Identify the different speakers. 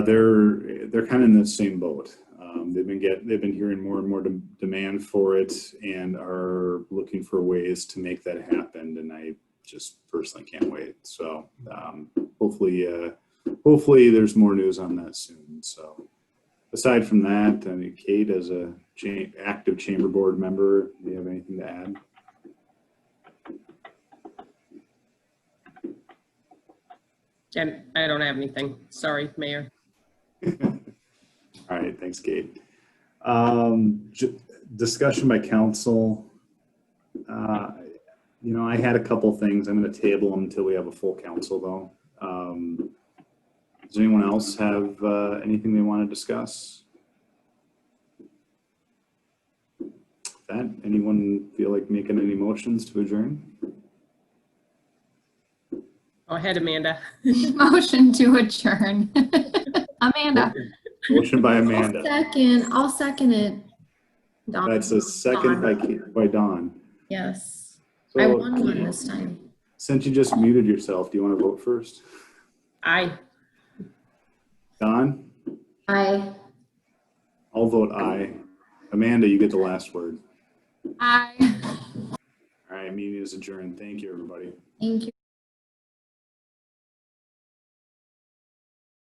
Speaker 1: They're they're kind of in the same boat. Um, they've been get they've been hearing more and more de- demand for it and are looking for ways to make that happen. And I just personally can't wait. So um, hopefully, uh, hopefully there's more news on that soon. So aside from that, I mean, Kate, as a cha- active chamber board member, do you have anything to add?
Speaker 2: And I don't have anything. Sorry, Mayor.
Speaker 1: All right, thanks, Kate. Um, j- discussion by council. Uh, You know, I had a couple things. I'm gonna table them until we have a full council though. Um, Does anyone else have, uh, anything they want to discuss? That, anyone feel like making any motions to adjourn?
Speaker 2: Go ahead, Amanda.
Speaker 3: Motion to adjourn. Amanda.
Speaker 1: Motion by
Speaker 4: I'll
Speaker 1: Amanda.
Speaker 4: second, I'll second it. Dawn.
Speaker 1: That's a second by, Kate- by Dawn.
Speaker 4: Yes, I won one
Speaker 1: So,
Speaker 4: this time.
Speaker 1: since you just muted yourself, do you want to vote first?
Speaker 2: Aye.
Speaker 1: Don?
Speaker 4: I,
Speaker 1: I'll vote aye. Amanda, you get the last word.
Speaker 3: Aye.
Speaker 1: All right, meeting is adjourned. Thank you, everybody.
Speaker 4: thank you.